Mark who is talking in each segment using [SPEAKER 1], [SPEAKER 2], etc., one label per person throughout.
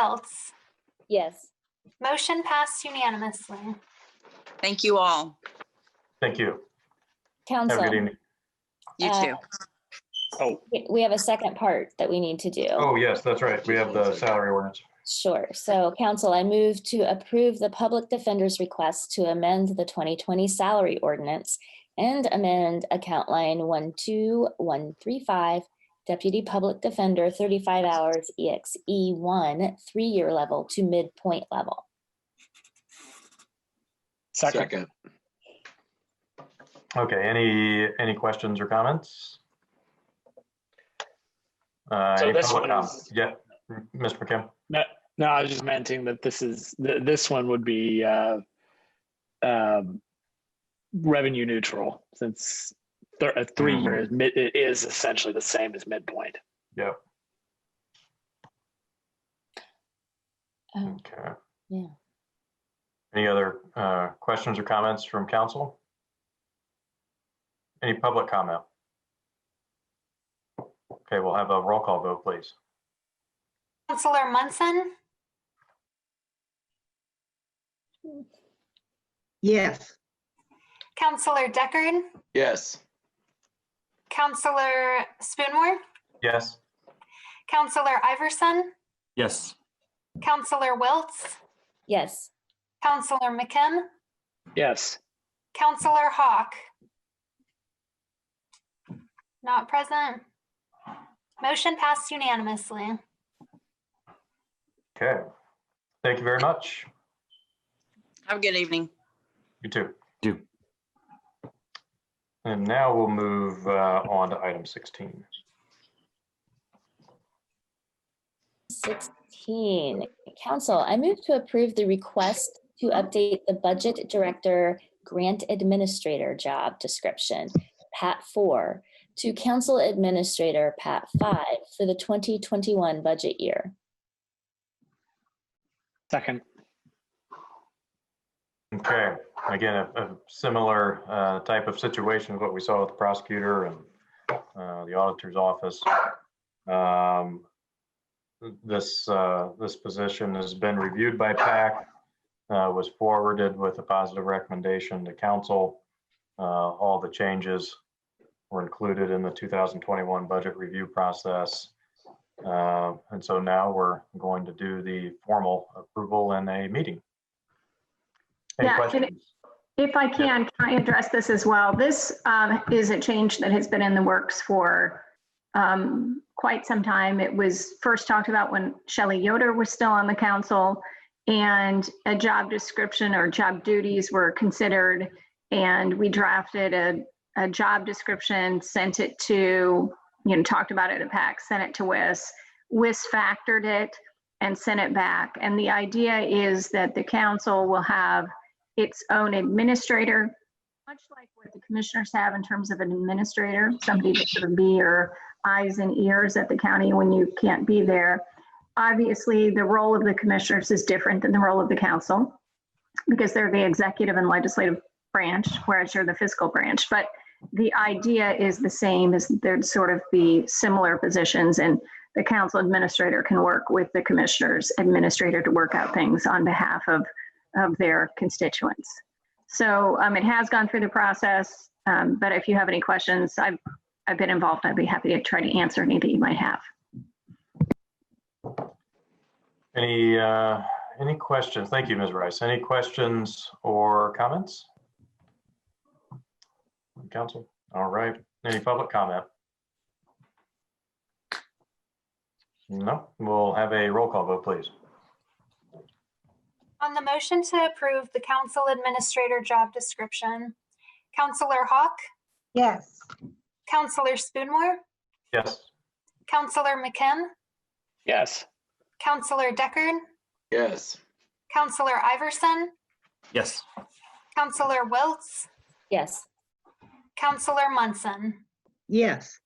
[SPEAKER 1] Welts,
[SPEAKER 2] Yes.
[SPEAKER 1] motion passed unanimously.
[SPEAKER 3] Thank you all.
[SPEAKER 4] Thank you. Have a good
[SPEAKER 2] Council,
[SPEAKER 4] evening.
[SPEAKER 3] You
[SPEAKER 2] Uh,
[SPEAKER 3] too.
[SPEAKER 5] Oh,
[SPEAKER 2] we- we have a second part that we need to do.
[SPEAKER 4] Oh, yes, that's right. We have the salary ordinance.
[SPEAKER 2] Sure. So council, I move to approve the public defender's request to amend the 2020 salary ordinance and amend account line 12135, deputy public defender, 35 hours, E EXE1, three-year level to midpoint level.
[SPEAKER 5] second.
[SPEAKER 6] Second,
[SPEAKER 4] Okay, any, any questions or comments? Uh,
[SPEAKER 5] So
[SPEAKER 4] any
[SPEAKER 5] this
[SPEAKER 4] public
[SPEAKER 5] one
[SPEAKER 4] com-
[SPEAKER 5] is-
[SPEAKER 4] Yeah, M- Mr. McKim,
[SPEAKER 5] No, I was just mentioning that this is, th- this one would be uh, um, revenue neutral since thir- uh, three
[SPEAKER 4] Mhm.
[SPEAKER 5] years, mid- it is essentially the same as midpoint.
[SPEAKER 4] yeah,
[SPEAKER 2] Oh,
[SPEAKER 4] okay.
[SPEAKER 2] Yeah.
[SPEAKER 4] Any other uh, questions or comments from council? Any public comment? Okay, we'll have a roll call vote, please.
[SPEAKER 1] Counselor Munson,
[SPEAKER 7] Yes,
[SPEAKER 1] Counselor Deckard,
[SPEAKER 6] yes,
[SPEAKER 1] Counselor Spoonmore,
[SPEAKER 4] Yes,
[SPEAKER 1] Counselor Iverson,
[SPEAKER 8] Yes.
[SPEAKER 1] Counselor Wiltz,
[SPEAKER 2] Yes.
[SPEAKER 1] Counselor McKim,
[SPEAKER 5] Yes,
[SPEAKER 1] Counselor Hawk. Not present. Motion passed unanimously.
[SPEAKER 4] okay. Thank you very much.
[SPEAKER 3] Have a good evening.
[SPEAKER 4] You too.
[SPEAKER 8] Do.
[SPEAKER 4] And now we'll move uh, on to item 16.
[SPEAKER 2] 16, council, I move to approve the request to update the budget director grant administrator job description, Pat 4, to council administrator, Pat 5, for the 2021 budget year.
[SPEAKER 5] second.
[SPEAKER 4] Okay, again, a a similar uh, type of situation, what we saw with the prosecutor and uh, the auditor's office. Um, This, uh, this position has been reviewed by PAC, uh, was forwarded with a positive recommendation to council. Uh, All the changes were included in the 2021 budget review process. Uh, And so now we're going to do the formal approval in a meeting. Any
[SPEAKER 9] Yeah, can I-
[SPEAKER 4] questions?
[SPEAKER 9] If I can, can I address this as well? This um, is a change that has been in the works for um, quite some time. It was first talked about when Shelley Yoder was still on the council, and a job description or job duties were considered, and we drafted a, a job description, sent it to, you know, talked about it at PAC, sent it to WIS. WIS factored it and sent it back. And the idea is that the council will have its own administrator, much like what the commissioners have in terms of an administrator, somebody to sort of be your eyes and ears at the county when you can't be there. Obviously, the role of the commissioners is different than the role of the council because they're the executive and legislative branch, whereas you're the fiscal branch. But the idea is the same, is there'd sort of be similar positions and the council administrator can work with the commissioners administrator to work out things on behalf of of their constituents. So um, it has gone through the process, um, but if you have any questions, I've, I've been involved. I'd be happy to try to answer any that you might have.
[SPEAKER 4] Any, uh, any questions? Thank you, Ms. Rice. Any questions or comments? Council, all right. Any public comment? No, we'll have a roll call vote, please.
[SPEAKER 1] On the motion to approve the council administrator job description, Counselor Hawk,
[SPEAKER 7] yes.
[SPEAKER 1] Counselor Spoonmore,
[SPEAKER 4] Yes,
[SPEAKER 1] Counselor McKim,
[SPEAKER 5] Yes,
[SPEAKER 1] Counselor Deckard,
[SPEAKER 6] yes.
[SPEAKER 1] Counselor Iverson,
[SPEAKER 8] Yes.
[SPEAKER 1] Counselor Wiltz,
[SPEAKER 2] Yes.
[SPEAKER 1] Counselor Munson.
[SPEAKER 7] Yes,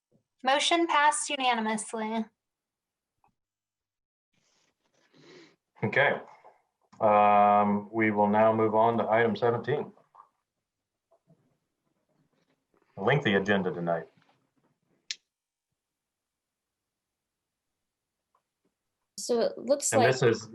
[SPEAKER 1] Motion passed unanimously.
[SPEAKER 4] okay. Um, We will now move on to item 17. Lengthy agenda tonight.
[SPEAKER 10] So it looks
[SPEAKER 2] And
[SPEAKER 10] like.
[SPEAKER 2] this is,